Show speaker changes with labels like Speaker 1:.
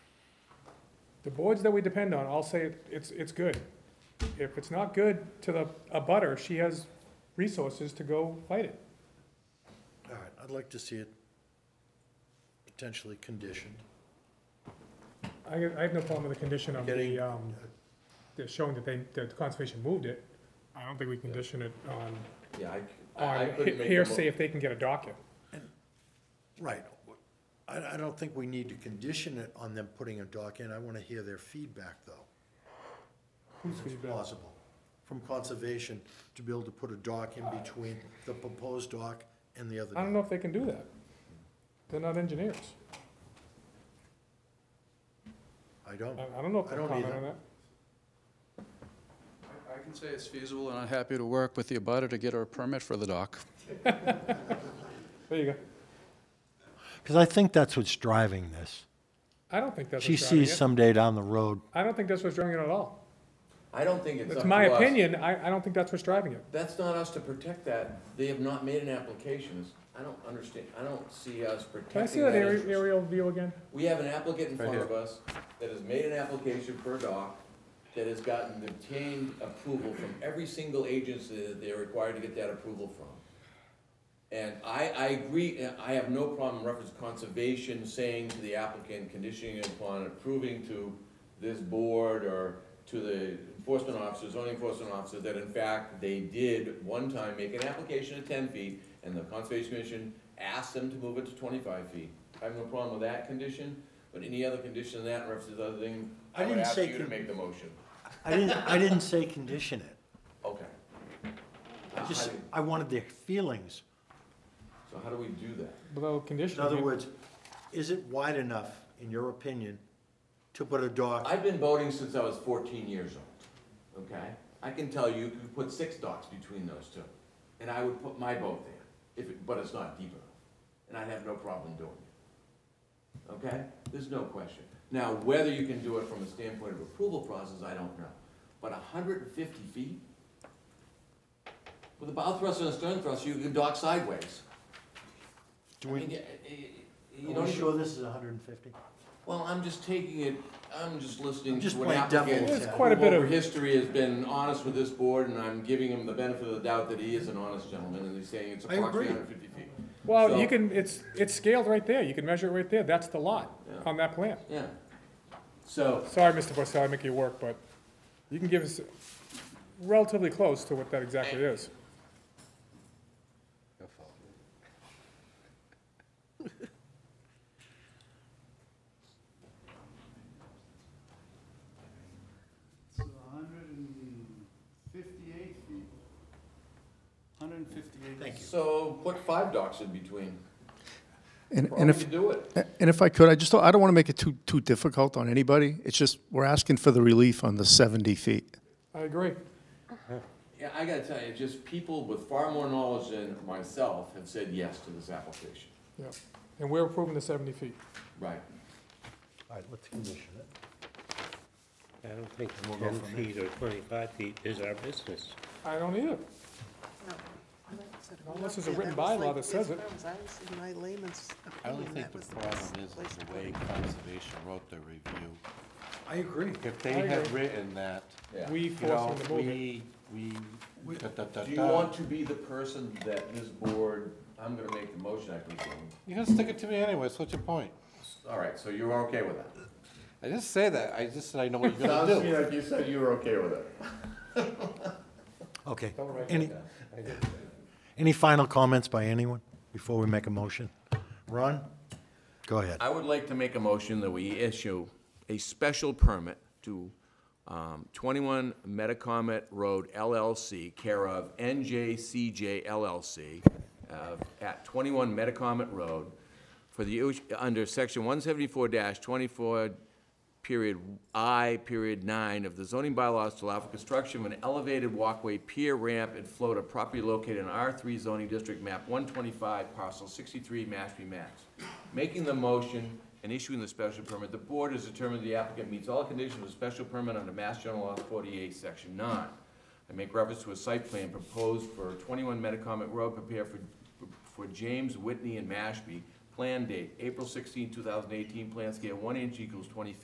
Speaker 1: the boards that we depend on all say it- it's, it's good. If it's not good to the, a butter, she has resources to go fight it.
Speaker 2: All right, I'd like to see it potentially conditioned.
Speaker 1: I, I have no problem with the condition of the,
Speaker 2: Getting-
Speaker 1: um, the showing that they, that the conservation moved it. I don't think we condition it on,
Speaker 3: Yeah, I, I- I
Speaker 1: on
Speaker 3: couldn't make. the
Speaker 1: hearsay
Speaker 3: mo-
Speaker 1: if they can get a docket.
Speaker 2: Right. I, I don't think we need to condition it on them putting a dock in. I want to hear their feedback, though.
Speaker 1: Who's
Speaker 2: If it's possible, from conservation to be able to put a dock in between the proposed dock and the other
Speaker 1: I
Speaker 2: dock.
Speaker 1: don't know if they can do that. They're not engineers.
Speaker 2: I don't.
Speaker 1: I, I don't know if
Speaker 2: I
Speaker 1: they'll
Speaker 2: don't
Speaker 1: comment
Speaker 2: either.
Speaker 1: on that.
Speaker 4: I can say it's feasible, and I'm happy to work with the abutter to get her a permit for the dock.
Speaker 1: There you go.
Speaker 5: Because I think that's what's driving this.
Speaker 1: I don't think that's
Speaker 5: She
Speaker 1: what's driving
Speaker 5: sees
Speaker 1: it.
Speaker 5: someday down the road,
Speaker 1: I don't think that's what's driving it at all.
Speaker 3: I don't think it's up
Speaker 1: It's
Speaker 3: to
Speaker 1: my
Speaker 3: us.
Speaker 1: opinion, I, I don't think that's what's driving it.
Speaker 3: That's not us to protect that. They have not made an application. I don't understand, I don't see us
Speaker 1: Can I see
Speaker 3: protecting
Speaker 1: that
Speaker 3: that
Speaker 1: aer-
Speaker 3: interest.
Speaker 1: aerial view again?
Speaker 3: We have an applicant in
Speaker 4: Right
Speaker 3: front
Speaker 4: here.
Speaker 3: of us that has made an application for a dock, that has gotten obtained approval from every single agency that they're required to get that approval from. And I, I agree, and I have no problem in reference to conservation saying to the applicant, conditioning it upon approving to this board or to the enforcement officer, zoning enforcement officer, that in fact, they did one time make an application of ten feet, and the conservation commission asked them to move it to twenty-five feet. I have no problem with that condition, but any other condition than that, in reference to the other thing,
Speaker 5: I
Speaker 3: I would
Speaker 5: didn't
Speaker 3: ask
Speaker 5: say
Speaker 3: you to
Speaker 5: con-
Speaker 3: make the motion.
Speaker 5: I didn't, I didn't say condition it.
Speaker 3: Okay.
Speaker 5: I just,
Speaker 3: How do-
Speaker 5: I wanted their feelings.
Speaker 3: So how do we do that?
Speaker 1: Below condition.
Speaker 5: In other words, is it wide enough, in your opinion, to put a dock?
Speaker 3: I've been boating since I was fourteen years old, okay? I can tell you, you could put six docks between those two, and I would put my boat there, if, it- but it's not deep enough, and I'd have no problem doing it. Okay? There's no question. Now, whether you can do it from a standpoint of approval process, I don't know, but hundred and fifty feet? With a bow thruster and a stern thruster, you can dock sideways.
Speaker 5: Do
Speaker 3: I
Speaker 5: we,
Speaker 3: mean, y- y- y- you
Speaker 5: are
Speaker 3: don't
Speaker 5: we
Speaker 3: even-
Speaker 5: sure this is hundred and fifty?
Speaker 3: well, I'm just taking it, I'm just listening
Speaker 5: I'm just
Speaker 3: to what
Speaker 5: playing
Speaker 3: applicant.
Speaker 5: devil's
Speaker 1: There's advocate. quite a bit
Speaker 3: who
Speaker 1: of-
Speaker 3: Over history has been honest with this board, and I'm giving him the benefit of the doubt that he is an honest gentleman, and he's saying it's
Speaker 5: I agree.
Speaker 3: approximately hundred fifty feet.
Speaker 1: Well,
Speaker 3: So-
Speaker 1: you can, it's, it's scaled right there, you can measure it right there, that's the lot
Speaker 3: Yeah.
Speaker 1: on that plan.
Speaker 3: Yeah. So,
Speaker 1: Sorry, Mr. Porcelli, I make you work, but you can give us relatively close to what that exactly is.
Speaker 6: It's hundred and fifty-eight feet. Hundred and fifty-eight.
Speaker 5: Thank you.
Speaker 3: so put five docks in between,
Speaker 7: And, and
Speaker 3: probably
Speaker 7: if,
Speaker 3: do it.
Speaker 7: and if I could, I just, don't- I don't want to make it too, too difficult on anybody. It's just, we're asking for the relief on the 70 feet.
Speaker 1: I agree.
Speaker 3: Yeah, I gotta tell you, just people with far more knowledge than myself have said yes to this application.
Speaker 1: Yeah, and we're approving the seventy feet.
Speaker 3: Right.
Speaker 5: All right, let's condition it.
Speaker 8: I don't think ten feet or twenty-five feet is our business.
Speaker 1: I don't either. Unless there's a written bylaw that says it.
Speaker 9: My layman's
Speaker 4: I only
Speaker 9: opinion,
Speaker 4: think
Speaker 9: that
Speaker 4: the
Speaker 9: was the
Speaker 4: problem is
Speaker 9: best place
Speaker 4: the
Speaker 9: to
Speaker 4: way
Speaker 9: put it.
Speaker 4: conservation wrote their review.
Speaker 2: I agree.
Speaker 8: If they
Speaker 1: I
Speaker 8: had
Speaker 1: agree.
Speaker 8: written that,
Speaker 3: Yeah.
Speaker 1: We
Speaker 8: you
Speaker 1: force
Speaker 8: know,
Speaker 1: them to move it.
Speaker 8: we, we, da, da, da,
Speaker 3: Do you
Speaker 8: da.
Speaker 3: want to be the person that this board, I'm gonna make the motion, I presume.
Speaker 8: You're gonna stick it to me anyway, so what's your point?
Speaker 3: All right, so you're okay with that?
Speaker 8: I didn't say that, I just said I know what you're gonna
Speaker 3: Sounds to me
Speaker 8: do.
Speaker 3: like you said you were okay with it.
Speaker 5: Okay. Any, any final comments by anyone before we make a motion? Ron, go ahead.
Speaker 3: I would like to make a motion that we issue a special permit to um, 21 Metacomet Road LLC, care of NJCJ LLC, uh, at 21 Metacomet Road, for the, us- under section 174-24, period I, period 9 of the zoning bylaws to allow for construction of an elevated walkway, pier, ramp, and float at property located in R3 zoning district map 125, parcel 63, Mashpee, Mass. Making the motion and issuing the special permit, the board has determined the applicant meets all conditions of the special permit under Mass General Law 48, section 9. I make reference to a site plan proposed for 21 Metacomet Road prepared for, for James Whitney and Mashpee. Plan date, April 16, 2018, plan scale 1 inch equals 20 feet.